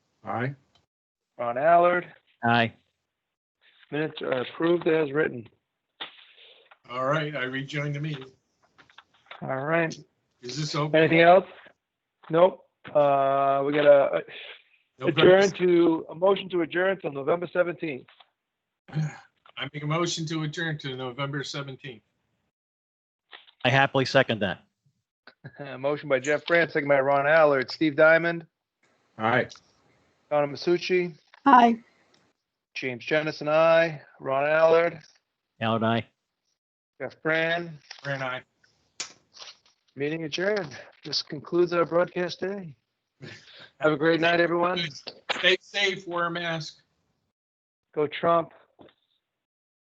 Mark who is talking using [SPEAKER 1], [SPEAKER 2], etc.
[SPEAKER 1] Aye.
[SPEAKER 2] Ron Allard.
[SPEAKER 3] Aye.
[SPEAKER 2] Minutes are approved as written.
[SPEAKER 1] All right, I rejoined the meeting.
[SPEAKER 2] All right.
[SPEAKER 1] Is this open?
[SPEAKER 2] Anything else? Nope. Uh, we got a
[SPEAKER 1] No
[SPEAKER 2] adjourn
[SPEAKER 1] business.
[SPEAKER 2] to, a motion to adjourn till November seventeenth.
[SPEAKER 1] I make a motion to adjourn to November 17th.
[SPEAKER 3] I happily second that.
[SPEAKER 2] Uh, Motion by Jeff France, second by Ron Allard, Steve Diamond,
[SPEAKER 1] All right.
[SPEAKER 2] Donna Masucci,
[SPEAKER 4] Hi.
[SPEAKER 2] James Jensen, I, Ron Allard,
[SPEAKER 3] Allard, aye.
[SPEAKER 2] Jeff Brand.
[SPEAKER 1] Fran, aye.
[SPEAKER 2] Meeting adjourned. This concludes our broadcast day. Have a great night, everyone.
[SPEAKER 1] Stay safe, wear a mask.
[SPEAKER 2] Go Trump.